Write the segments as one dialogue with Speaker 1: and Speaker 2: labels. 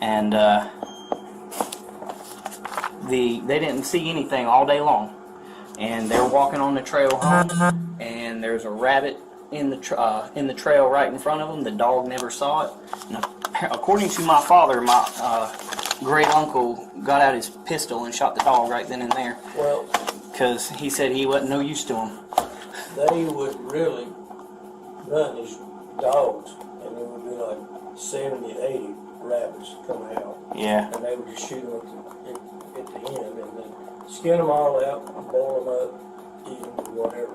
Speaker 1: and uh, the they didn't see anything all day long. And they're walking on the trail home, and there's a rabbit in the tr uh, in the trail right in front of them. The dog never saw it. And appa- according to my father, my uh, great uncle got out his pistol and shot the dog right then and there
Speaker 2: Well,
Speaker 1: because he said he wasn't no use to him.
Speaker 2: they would really run these dogs, and there would be like 70, 80 rabbits come out,
Speaker 1: Yeah,
Speaker 2: and they would just shoot them at the, at, at the end, and then skin them all out, boil them up, eat them, whatever.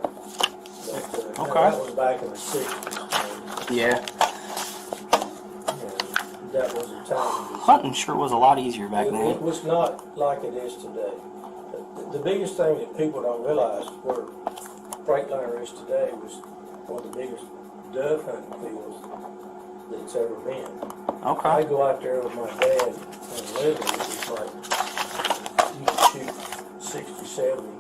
Speaker 2: But, uh,
Speaker 1: Okay.
Speaker 2: That was back in the 60s,
Speaker 1: yeah.
Speaker 2: and, and that was a time.
Speaker 1: Hunting sure was a lot easier back
Speaker 2: It, it
Speaker 1: then.
Speaker 2: was not like it is today. The- The biggest thing that people don't realize where Freightliner is today was one of the biggest dove hunting fields that's ever been. I
Speaker 1: Okay.
Speaker 2: go out there with my dad and live it, it's like, you can shoot sixty, seventy,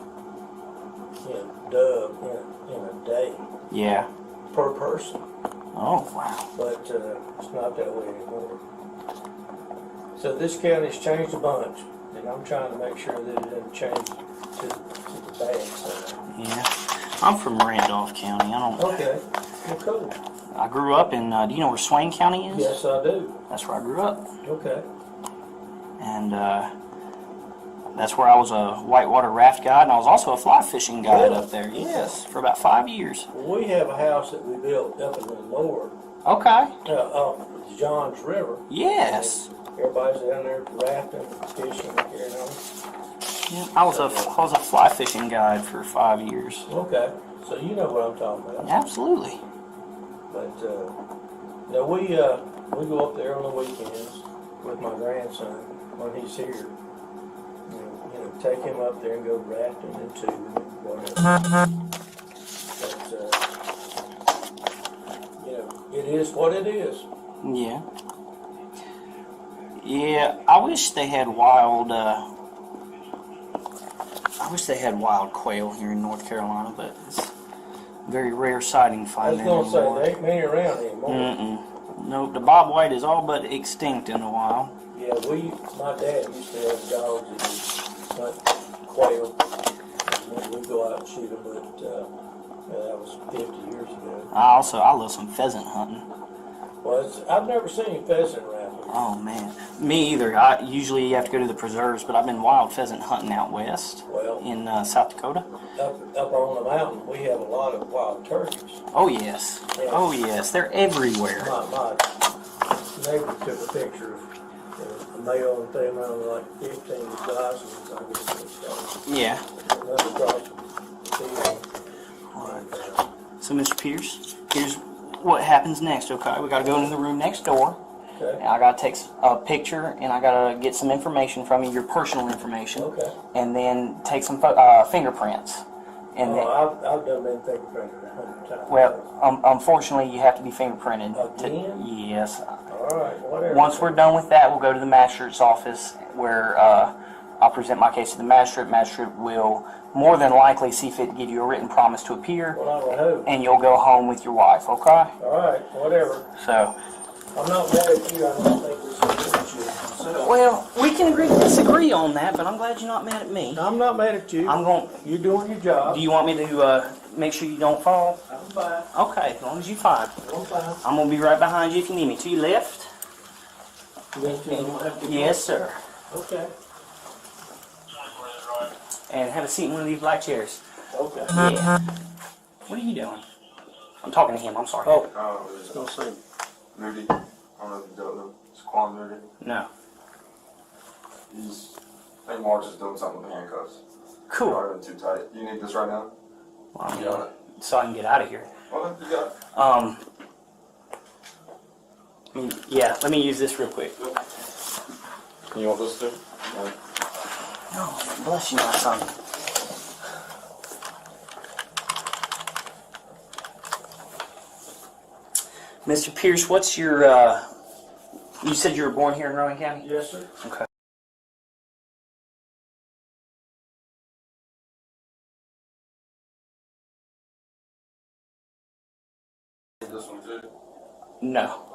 Speaker 2: you know, dove in, a- in a day
Speaker 1: Yeah.
Speaker 2: per person.
Speaker 1: Oh wow.
Speaker 2: But uh, it's not that way anymore. So this county's changed a bunch, and I'm trying to make sure that it doesn't change to, to the bad side.
Speaker 1: Yeah. I'm from Randolph County. I don't.
Speaker 2: Okay, well, cool.
Speaker 1: I grew up in. Uh, do you know where Swain County is?
Speaker 2: Yes, I do.
Speaker 1: That's where I grew up,
Speaker 2: Okay.
Speaker 1: and uh, that's where I was a whitewater raft guide, and I was also a fly fishing guide
Speaker 2: Really?
Speaker 1: up there. Yes, for about five years.
Speaker 2: We have a house that we built up in the lower,
Speaker 1: Okay.
Speaker 2: uh, off Johns River.
Speaker 1: Yes.
Speaker 2: Everybody's down there rafting, fishing, carrying on.
Speaker 1: Yeah, I was a I was a fly fishing guide for five years.
Speaker 2: Okay, so you know what I'm talking about.
Speaker 1: Absolutely.
Speaker 2: But uh, now we uh, we go up there on the weekends with my grandson when he's here. And, you know, take him up there and go rafting and tubing and whatever. But uh, you know, it is what it is.
Speaker 1: Yeah. Yeah, I wish they had wild. Uh, I wish they had wild quail here in North Carolina, but it's a very rare sighting.
Speaker 2: I
Speaker 1: Find
Speaker 2: was
Speaker 1: that
Speaker 2: gonna say
Speaker 1: anymore.
Speaker 2: there ain't many around anymore.
Speaker 1: Mm. Mm-mm. No, the bobwhite is all but extinct in the wild.
Speaker 2: Yeah, we my dad used to have dogs that would hunt quail. And we'd go out and shoot them, but uh, yeah, that was 50 years ago.
Speaker 1: I also I love some pheasant hunting.
Speaker 2: Well, it's, I've never seen pheasant around here.
Speaker 1: Oh man, me either. I usually you have to go to the preserves, but I've been wild pheasant hunting out west
Speaker 2: Well,
Speaker 1: in uh, South Dakota.
Speaker 2: up, up on the mountain, we have a lot of wild turkeys.
Speaker 1: Oh yes, oh yes, they're everywhere.
Speaker 2: My, my neighbor took a picture of uh, a male and female, like fifteen dozens, I guess it's called.
Speaker 1: Yeah.
Speaker 2: Another across the field. And, uh,
Speaker 1: So, Mr. Pierce, here's what happens next, okay? We gotta go into the room next door. And
Speaker 2: Okay,
Speaker 1: I gotta take s- a picture and I gotta get some information from you, your personal information.
Speaker 2: okay.
Speaker 1: And then take some pho- uh, fingerprints. And then,
Speaker 2: Oh, I've, I've done been fingerprinted a hundred times.
Speaker 1: well, um, unfortunately, you have to be fingerprinted. to-
Speaker 2: Again?
Speaker 1: Yes.
Speaker 2: All right, whatever.
Speaker 1: Once we're done with that, we'll go to the magistrate's office where uh, I'll present my case to the magistrate. Magistrate will more than likely see fit to give you a written promise to appear
Speaker 2: Well, I don't know.
Speaker 1: and you'll go home with your wife, okay?
Speaker 2: All right, whatever.
Speaker 1: So.
Speaker 2: I'm not mad at you, I don't think we should hurt you. So-
Speaker 1: Well, we can agree to disagree on that, but I'm glad you're not mad at me.
Speaker 2: I'm not mad at you.
Speaker 1: I'm going.
Speaker 2: You're doing your job.
Speaker 1: Do you want me to uh, make sure you don't fall?
Speaker 2: I'm fine.
Speaker 1: Okay, as long as you fine.
Speaker 2: I'm fine.
Speaker 1: I'm gonna be right behind you if you need me. To your left.
Speaker 2: You guys don't have to go.
Speaker 1: Yes, sir.
Speaker 2: Okay.
Speaker 1: And have a seat in one of these black chairs.
Speaker 2: Okay.
Speaker 1: Yeah. What are you doing? I'm talking to him. I'm sorry.
Speaker 2: Oh,
Speaker 3: Oh,
Speaker 2: it's
Speaker 3: yeah.
Speaker 2: gonna say
Speaker 3: Moody. I don't know if you don't know. It's Quan Moody.
Speaker 1: No.
Speaker 3: He's. I think March is doing something with handcuffs.
Speaker 1: Cool.
Speaker 3: Probably too tight. You need this right now?
Speaker 1: Well, I'm
Speaker 3: You
Speaker 1: gonna-
Speaker 3: got it.
Speaker 1: so I can get out of here.
Speaker 3: Well, you got it.
Speaker 1: Um. mm, Yeah. Let me use this real quick.
Speaker 3: You want this too? Yeah.
Speaker 1: No, bless you, my son. Mr. Pierce, what's your, uh, you said you were born here in Rowan County?
Speaker 2: yes, sir.
Speaker 1: Okay.
Speaker 3: This one too.
Speaker 1: No.